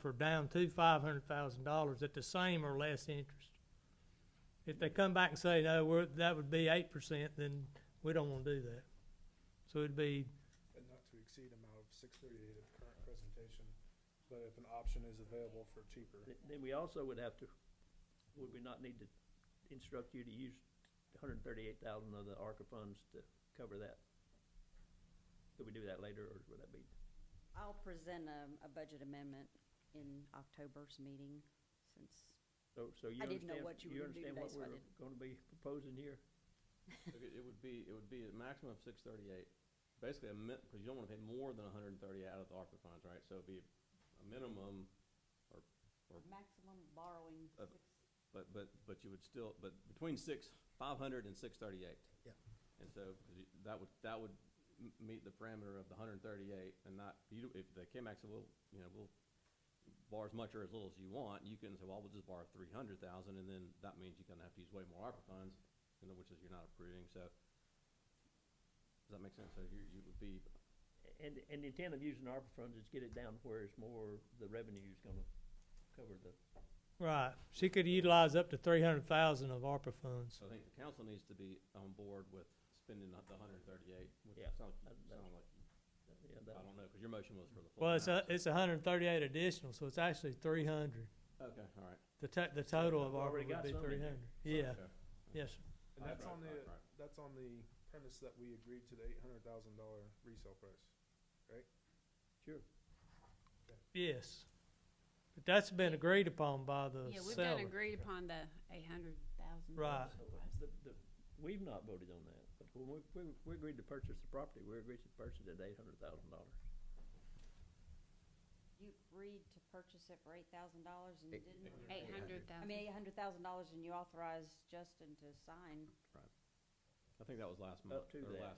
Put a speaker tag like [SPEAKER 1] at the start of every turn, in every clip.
[SPEAKER 1] for down to five hundred thousand dollars at the same or less interest. If they come back and say, no, we're, that would be eight percent, then we don't wanna do that. So it'd be,
[SPEAKER 2] and not to exceed amount of six thirty-eight of the current presentation, but if an option is available for cheaper.
[SPEAKER 3] Th- Then we also would have to, would we not need to instruct you to use hundred and thirty-eight thousand of the ARCA funds to cover that? Could we do that later, or would that be,
[SPEAKER 4] I'll present a, a budget amendment in October's meeting, since,
[SPEAKER 3] so, so you
[SPEAKER 4] I didn't know
[SPEAKER 3] understand,
[SPEAKER 4] what you
[SPEAKER 3] you
[SPEAKER 4] were
[SPEAKER 3] understand
[SPEAKER 4] gonna do
[SPEAKER 3] what
[SPEAKER 4] today, so I
[SPEAKER 3] we're gonna be proposing here?
[SPEAKER 5] Look, It it would be, it would be a maximum of six thirty-eight, basically a min, because you don't want to pay more than hundred and thirty out of the ARPA funds, right? So it'd be a minimum,
[SPEAKER 4] maximum borrowing,
[SPEAKER 5] Of-
[SPEAKER 4] six-
[SPEAKER 5] but, but, but you would still, but between six, five hundred and six thirty-eight.
[SPEAKER 6] Yeah.
[SPEAKER 5] And so, 'cause you- that would, that would m- meet the parameter of the hundred and thirty-eight and not, you, don't- if the KMAX will, you know, will borrow as much or as little as you want, you can say, well, we'll just borrow three hundred thousand, and then that means you're gonna have to use way more ARPA funds, you know, which is you're not approving, so. Does that make sense? So you, you would be
[SPEAKER 3] And, and the intent of using ARPA funds is get it down where it's more, the revenue's gonna cover the,
[SPEAKER 1] right, she could utilize up to three hundred thousand of ARPA funds.
[SPEAKER 5] So I think the council needs to be on board with spending the hundred and thirty-eight, which
[SPEAKER 3] Yeah,
[SPEAKER 5] sounds,
[SPEAKER 3] that- that-
[SPEAKER 5] sound like,
[SPEAKER 3] yeah, that.
[SPEAKER 5] I don't know, because your motion was for the full.
[SPEAKER 1] Well, it's uh, a,
[SPEAKER 5] amount,
[SPEAKER 1] it's hundred and thirty-eight additional, so it's actually three hundred.
[SPEAKER 5] so- Okay, all right.
[SPEAKER 1] The to- the total of
[SPEAKER 3] We've
[SPEAKER 1] ARPA
[SPEAKER 3] already
[SPEAKER 1] would
[SPEAKER 3] got
[SPEAKER 1] be
[SPEAKER 3] some in
[SPEAKER 1] three
[SPEAKER 3] there.
[SPEAKER 1] hundred. Yeah,
[SPEAKER 5] Okay.
[SPEAKER 1] yes, sir.
[SPEAKER 2] And that's
[SPEAKER 5] Right,
[SPEAKER 2] on the,
[SPEAKER 5] right, right.
[SPEAKER 2] that's on the premise that we agreed to the eight hundred thousand dollar resale price.
[SPEAKER 3] Sure.
[SPEAKER 1] yes. But that's been agreed upon by the
[SPEAKER 7] Yeah, we've
[SPEAKER 1] seller.
[SPEAKER 7] done agreed upon the eight hundred thousand.
[SPEAKER 1] Right.
[SPEAKER 3] So, The, the, we've not voted on that, but when we, we, we agreed to purchase the property, we agreed to purchase it at eight hundred thousand dollars.
[SPEAKER 4] you agreed to purchase it for eight thousand dollars and you didn't?
[SPEAKER 7] Eight hundred
[SPEAKER 4] I
[SPEAKER 7] thousand.
[SPEAKER 4] mean, eight hundred thousand dollars and you authorized Justin to sign
[SPEAKER 5] I think that was last month,
[SPEAKER 3] to
[SPEAKER 5] or
[SPEAKER 3] that.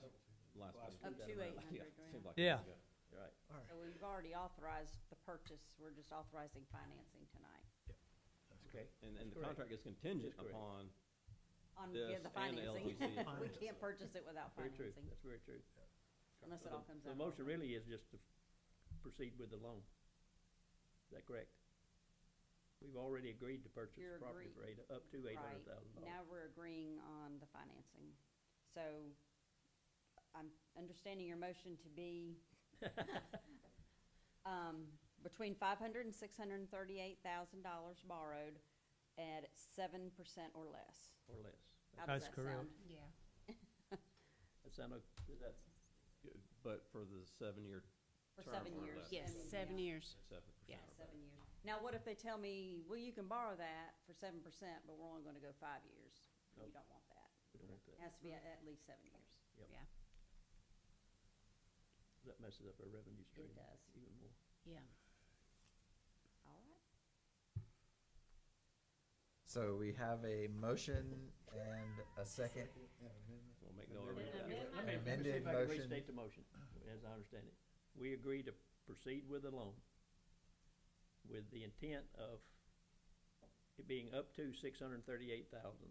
[SPEAKER 5] last, last.
[SPEAKER 2] Last
[SPEAKER 5] month.
[SPEAKER 4] up to eight
[SPEAKER 5] Yeah,
[SPEAKER 4] hundred
[SPEAKER 5] seemed
[SPEAKER 4] grand.
[SPEAKER 5] like
[SPEAKER 1] Yeah.
[SPEAKER 5] months ago.
[SPEAKER 3] Right.
[SPEAKER 4] So we've already authorized the purchase, we're just authorizing financing tonight.
[SPEAKER 3] Okay.
[SPEAKER 5] And,
[SPEAKER 3] That's
[SPEAKER 5] and the
[SPEAKER 3] correct.
[SPEAKER 5] contract is contingent
[SPEAKER 3] That's correct.
[SPEAKER 5] upon,
[SPEAKER 4] On,
[SPEAKER 5] This
[SPEAKER 4] yeah, the
[SPEAKER 5] and the
[SPEAKER 4] financing.
[SPEAKER 5] LTC.
[SPEAKER 4] We can't purchase it without
[SPEAKER 3] Very true,
[SPEAKER 4] financing,
[SPEAKER 3] that's very true.
[SPEAKER 4] unless
[SPEAKER 3] So
[SPEAKER 4] it
[SPEAKER 3] the-
[SPEAKER 4] all comes out.
[SPEAKER 3] The
[SPEAKER 4] of
[SPEAKER 3] motion
[SPEAKER 4] ARPA.
[SPEAKER 3] really is just to proceed with the loan. Is that correct? We've already agreed to purchase the
[SPEAKER 4] You're
[SPEAKER 3] property
[SPEAKER 4] agree-
[SPEAKER 3] for eight, up to eight hundred thousand dollars.
[SPEAKER 4] Now we're agreeing on the financing. So I'm understanding your motion to be um, between five hundred and six hundred and thirty-eight thousand dollars borrowed at seven percent or less.
[SPEAKER 3] Or less.
[SPEAKER 4] How does
[SPEAKER 1] That's
[SPEAKER 4] that sound?
[SPEAKER 7] Yeah.
[SPEAKER 3] That sound, o- is that,
[SPEAKER 5] but for the seven-year,
[SPEAKER 4] For
[SPEAKER 5] Term
[SPEAKER 4] seven
[SPEAKER 5] or
[SPEAKER 4] years.
[SPEAKER 5] less.
[SPEAKER 7] Yes,
[SPEAKER 4] and-
[SPEAKER 7] seven
[SPEAKER 4] yeah,
[SPEAKER 7] years.
[SPEAKER 5] seven percent.
[SPEAKER 7] Yeah,
[SPEAKER 5] or
[SPEAKER 4] Seven years. Now, what if they tell me, well, you can borrow that for seven percent, but we're only gonna go five years?
[SPEAKER 3] Nope.
[SPEAKER 4] You don't want that.
[SPEAKER 3] we don't want
[SPEAKER 4] It
[SPEAKER 3] that.
[SPEAKER 4] has to be at, at least seven years.
[SPEAKER 3] That messes up our revenue stream
[SPEAKER 4] does.
[SPEAKER 3] even more.
[SPEAKER 7] Yeah.
[SPEAKER 4] All right.
[SPEAKER 8] So we have a motion and a second.
[SPEAKER 5] better. We'll make no argument.
[SPEAKER 7] Then amend
[SPEAKER 3] Okay, let me see
[SPEAKER 8] Amended
[SPEAKER 3] if I can
[SPEAKER 8] motion.
[SPEAKER 3] Restate the motion, as I understand it. We agree to proceed with the loan with the intent of it being up to six hundred and thirty-eight thousand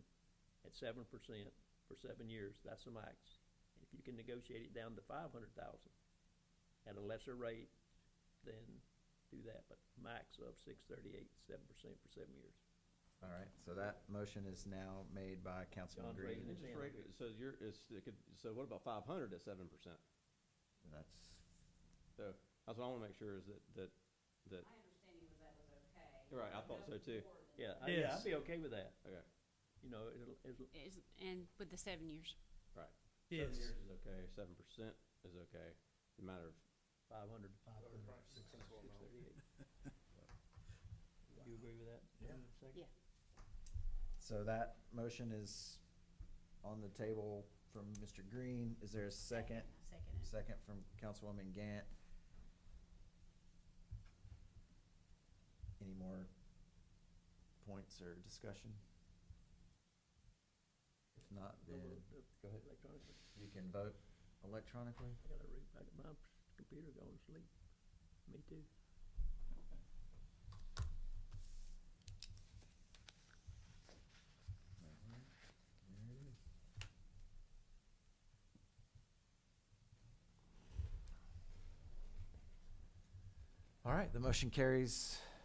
[SPEAKER 3] at seven percent for seven years, that's the max. If you can negotiate it down to five hundred thousand at a lesser rate, then do that, but max of six thirty-eight, seven percent for seven years.
[SPEAKER 8] All right, so that motion is now made by Councilman
[SPEAKER 3] John's
[SPEAKER 8] Green.
[SPEAKER 3] raising his
[SPEAKER 5] Interest
[SPEAKER 3] hand.
[SPEAKER 5] rate, so you're, it's, it could, so what about five hundred at seven percent?
[SPEAKER 8] And That's
[SPEAKER 5] So, that's what I want to make sure is that, that, that,
[SPEAKER 4] My understanding was that was okay.
[SPEAKER 5] right, I thought so too.
[SPEAKER 3] Yeah, I- yeah,
[SPEAKER 1] Yes.
[SPEAKER 3] I'd be okay with that.
[SPEAKER 5] Okay.
[SPEAKER 3] You know, it'll, it'll,
[SPEAKER 7] Is, and with the seven years.
[SPEAKER 1] Yes.
[SPEAKER 5] Seven years is okay, seven percent is okay, a matter of
[SPEAKER 3] five hundred,
[SPEAKER 2] Six principal amount.
[SPEAKER 3] six thirty-eight. You agree with that? John, second?
[SPEAKER 7] Yeah.
[SPEAKER 8] So that motion is on the table from Mr. Green. Is there a second?
[SPEAKER 7] Second.
[SPEAKER 8] Second from Councilwoman Gant. Any more points or discussion? If not,
[SPEAKER 3] Go
[SPEAKER 8] then
[SPEAKER 3] vote,
[SPEAKER 8] go ahead.
[SPEAKER 3] uh, Electronically,
[SPEAKER 8] You can vote electronically.
[SPEAKER 3] I gotta read, I got my computer going to sleep, me too.
[SPEAKER 8] All right, the motion carries